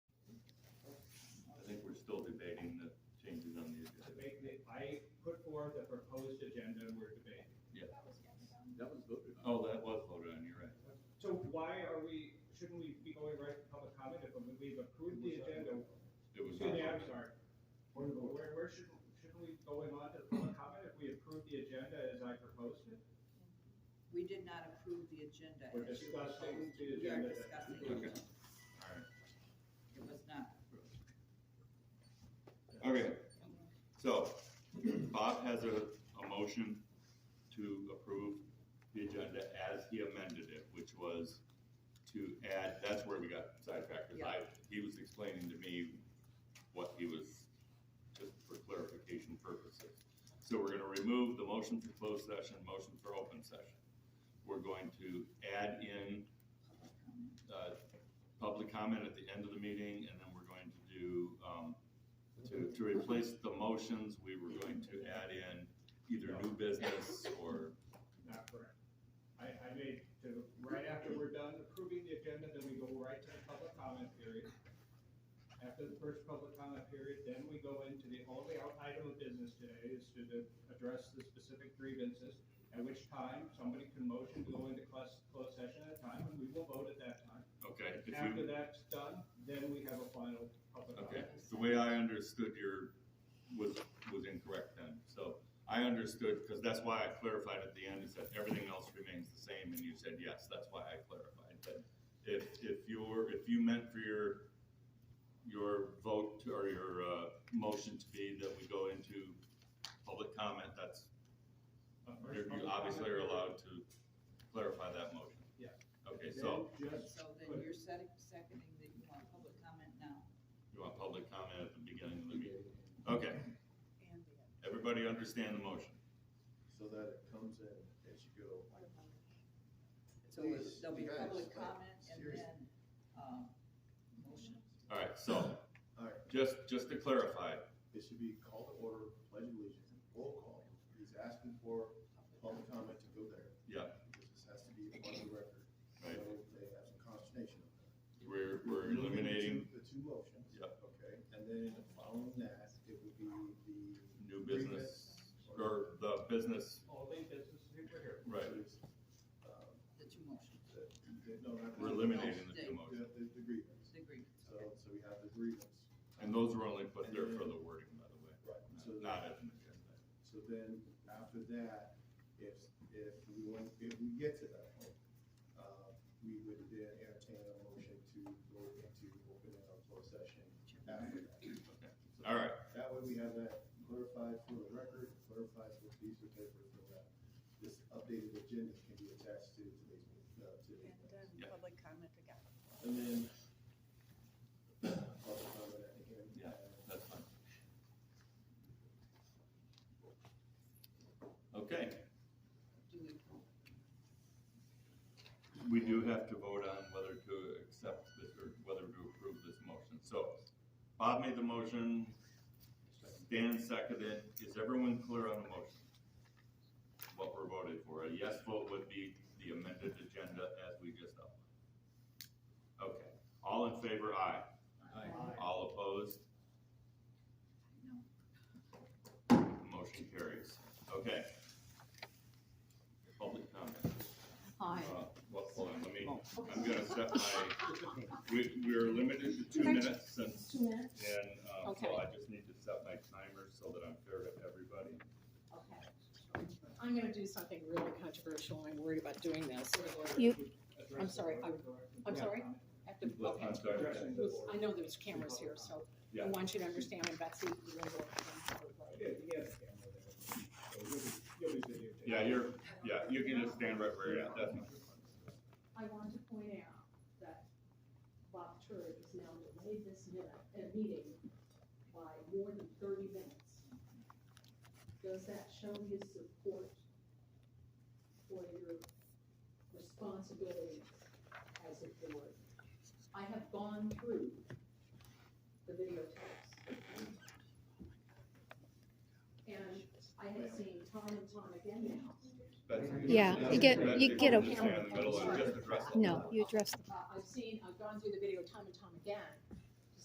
That was voted on. Oh, that was voted on, you're right. So why are we, shouldn't we be going right to public comment if we've approved the agenda? It was. Excuse me, not I'm sorry. Where, where should, shouldn't we go in on to public comment if we approve the agenda as I proposed it? We did not approve the agenda. We're as you discussing proposed. the We are agenda. discussing Okay. it. Alright. It was not. Okay, so Bob has a, a motion to approve the agenda as he amended it, which was to add, that's where we got sidetracked, because I, he was explaining to me what he was, just for clarification purposes. So we're gonna remove the motion for closed session, motion for open session. We're going to add in public comment. uh, public comment at the end of the meeting, and then we're going to do, um, to, to replace the motions, we were going to add in either new business or, Not correct. I, I made, to, right after we're done approving the agenda, then we go right to the public comment period. After the first public comment period, then we go into the only out- item of business today is to the- address the specific grievances, at which time somebody can motion to go into class, closed session at a time, and we will vote at that time. okay, if After you, that's done, then we have a final public okay. comment. The way I understood your, was, was incorrect then, so I understood, because that's why I clarified at the end, and said everything else remains the same, and you said yes, that's why I clarified, but if, if you're, if you meant for your, your vote to- or your, uh, motion to be that we go into public comment, that's A first You you public obviously are comment period. allowed to clarify that motion. Yeah. Okay, so Then just So put- then you're setting, seconding that you want public comment now. you want public comment at the beginning of the meeting. Okay, everybody understand the motion? So that it comes in as you go. So it- there'll be Please, guys, public like, comment and seriously. then, um, motion. All right, so All right, just, just to clarify, it should be call to order, pledge allegiance, roll call. He's asking for public comment to go there. yeah, Because this has to be on the record. Right. So they have some consternation of that. we're, we're We're moving the two- eliminating The two motions. Yep. Okay, and then following that, it would be the. new business or the business, Only business people here. right, Um, The two motions, the- the- No, not. the- we're eliminating the two motions. The, the the grievance. the agreements, So, okay. so we have the grievance. And those were only put there for the wording, by the way, Right. So, not as an agenda. so then after that, if, if we want, if we get to that point, uh, we would then entertain a motion to go into open and closed session after that. Okay, all right, That way we have that clarified for the record, clarified for these papers, so that this updated agenda can be attached to today's, uh, today's. And then Yeah. public comment again. And then, I'll comment again. Yeah. that's fine. Okay. Do we, We do have to vote on whether to accept this or whether to approve this motion. So Bob made the motion, Dan seconded. Is everyone clear on the motion? What we're voting for? A yes vote would be the amended agenda as we just outlined. Okay, all in favor, aye. Aye. All opposed, no, motion carries. Okay. Public comment. Uh, Well, hold on, let me, I'm gonna set my, we, we're limited to two minutes since, Two minutes? and, um, so Okay. I just need to set my timer so that I'm fair to everybody. Okay. I'm gonna do something really controversial, I'm worried about doing this. You, I'm sorry, I'm- I'm sorry? I have to- Look, okay. I'm sorry. I know there's cameras here, so I Yeah. want you to understand, and Betsy, you know what I'm Yeah, you have a camera there. So You'll be, you'll be videotaped. Yeah, you're, yeah, you can just stand right where you're at, that's fine. I want to point out that Bob Turd has now delayed this minute, uh, meeting by more than thirty minutes. Does that show his support for your responsibilities as a board? I have gone through the videotapes. And I have seen time and time again now, Betsy, Yeah, Betsy, you get- Betsy, you get a- just stand in the middle and just address the- No, you address the Uh, I've seen, I've gone through the video time and time again,